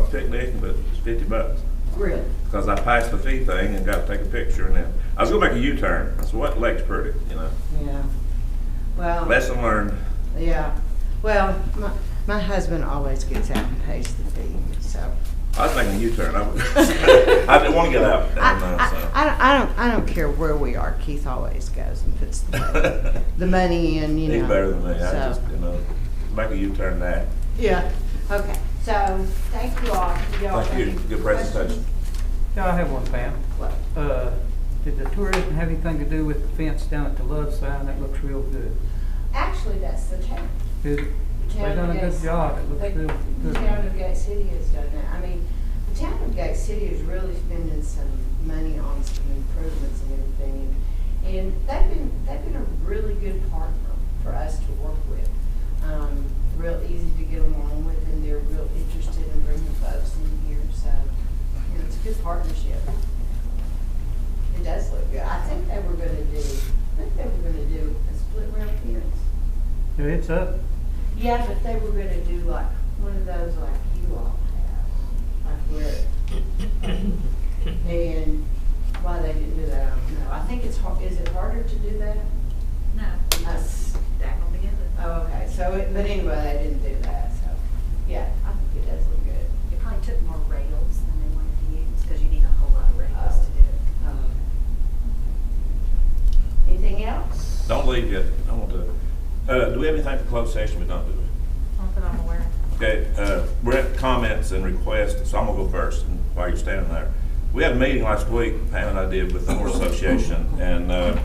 a picnic, but it's fifty bucks. Really? Because I passed the fee thing and got to take a picture and then, I was gonna make a U-turn. I said, what lake's pretty, you know? Yeah. Well, Lesson learned. yeah. Well, my, my husband always gets out and pays the fee, so. I was making a U-turn. I was- I didn't want to get out. I, and, uh, so. I, I don't, I don't, I don't care where we are, Keith always goes and puts the, the money in, you know. He's better than me. I so. just, you know, make a U-turn that. Yeah, okay, so, thank you all. Do y'all Thank you. have any Good presentation. questions? Yeah, I have one, Pam. Well, Uh, Did the tourism have anything to do with the fence down at the Love sign? That looks real good. Actually, that's the town. Did- The They town done of a Gates- good job. It looks the- real The town of good. Gate City has done that. I mean, the town of Gate City is really spending some money on some improvements and everything. And and they've been, they've been a really good partner for us to work with. Um, real easy to get along with and they're real interested in bringing folks in here, so, you know, it's a good partnership. It does look good. I think they were gonna do, I think they were gonna do a split rail fence. Yeah, It's up. Yeah, but they were gonna do like one of those like you all have, like where. And why they didn't do that, I don't know. I think it's hard, is it harder to do that? No, Us. back on together. Oh, okay, so, it- but anyway, they didn't do that, so, yeah, I think it does look good. It probably took more rails than they wanted to use, because you need a whole lot of rails to do it. Um, Anything else? Don't leave yet. I want to, uh, do we have anything for closed session? We don't do it. Not that I'm aware of. Okay, uh, we're at comments and requests, so I'm gonna go first and while you're standing there. We had a meeting last week, Pam and I did, with the Horse Association, and uh,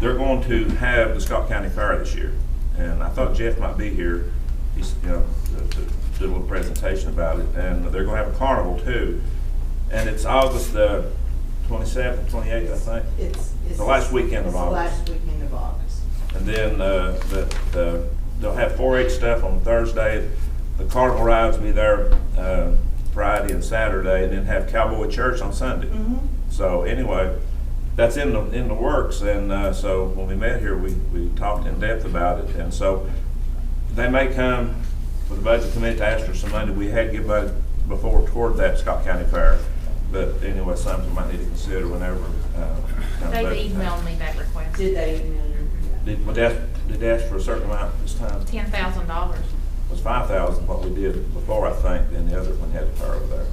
they're going to have the Scott County Fair this year. And I thought Jeff might be here, he's, you know, to to do a little presentation about it. And they're gonna have a carnival too. And it's August the 27th, 28th, I think. It's, it's. The last weekend of it's the August. last weekend of August. And then, uh, the, the, they'll have four H stuff on Thursday. The carnival rides will be there, uh, Friday and Saturday, and then have cowboy church on Sunday. Mm-hmm. So anyway, that's in the, in the works, and, uh, so when we met here, we, we talked in depth about it, and so they may come for the budget committee to ask for some money, we had given budget before toward that Scott County Fair, but anyway, something we might need to consider whenever, uh. David emailed me that request, Did they email you? Did, would ask, did ask for a certain amount this time? It ten thousand dollars. was five thousand, what we did before, I think, then the other one had a car over there.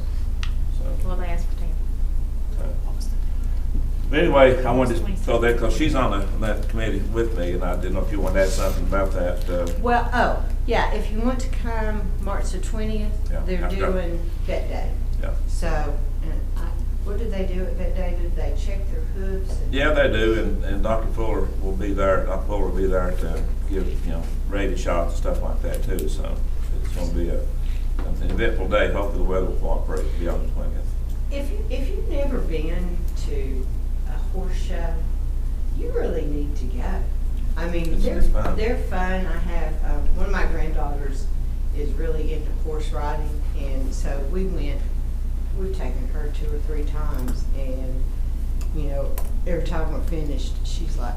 So, Well, they asked for ten. uh, But anyway, I wanted to throw that, because she's on the, that committee with me, and I didn't know if you wanted to add something about that, uh, Well, oh, yeah, if you want to come March the twentieth, Yeah, they're I've got- doing vet day. yeah. So, and I, what did they do at vet day? Did they check their hooves? and- Yeah, they do, and, and Dr. Fuller will be there, Dr. Fuller will be there to give, you know, rabies shots and stuff like that too, so it's gonna be a, an eventful day, hopefully the weather will cooperate beyond the twentieth. If, you- if you've never been to a horse show, you really need to go. I mean, It's- they're, it's fun. they're fun. I have, um, one of my granddaughters is really into horse riding, and so we went, we've taken her two or three times, and, you know, every time we're finished, she's like,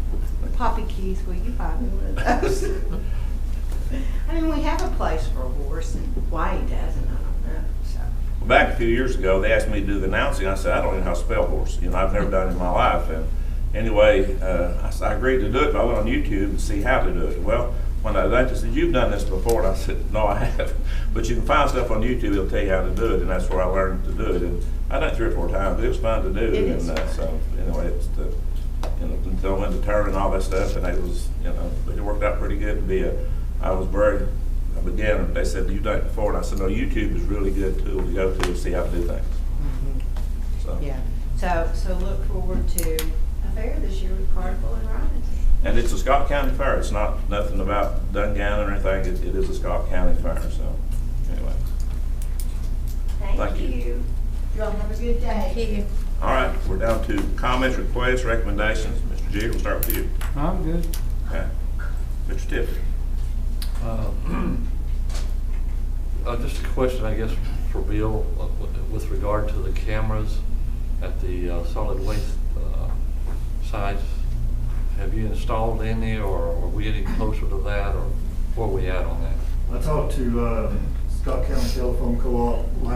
Poppy Keith, will you buy me one of those? I mean, we have a place for a horse, and why he doesn't, I don't know, so. Well, Back a few years ago, they asked me to do the announcing. I said, I don't even know how to spell horse. You know, I've never done it in my life. And anyway, uh, I said, I agreed to do it, but I went on YouTube and see how to do it. Well, when I left, they said, you've done this before. And I said, no, I haven't. But you can find stuff on YouTube, it'll tell you how to do it. And that's where I learned to do it. And I done it three or four times, but it was fun to do. It is. And uh, so, anyway, it's the, you know, until I went to turn and all that stuff. And it was, you know, but it worked out pretty good to be a, I was very, I began, they said, you've done it before. And I said, no, YouTube is really good tool to go to and see how to do things. So. Yeah, so, so look forward to a fair this year with Carnival and Ryan's. And it's a Scott County fair. It's not, nothing about Dungannon or anything. It, it is a Scott County fair, so, anyway. Thank Thank you. you. Y'all have a good day. you. All right, we're down to comments, requests, recommendations. Mr. Jig, we'll start with you. I'm good. Okay. Mr. Tiffany? Uh, uh, Just a question, I guess, for Bill, uh, with- with regard to the cameras at the uh, solid waste uh, sites. Have you installed any, or are we getting closer to that, or where are we at on that? I talked to uh, Scott County Telephone Co-op last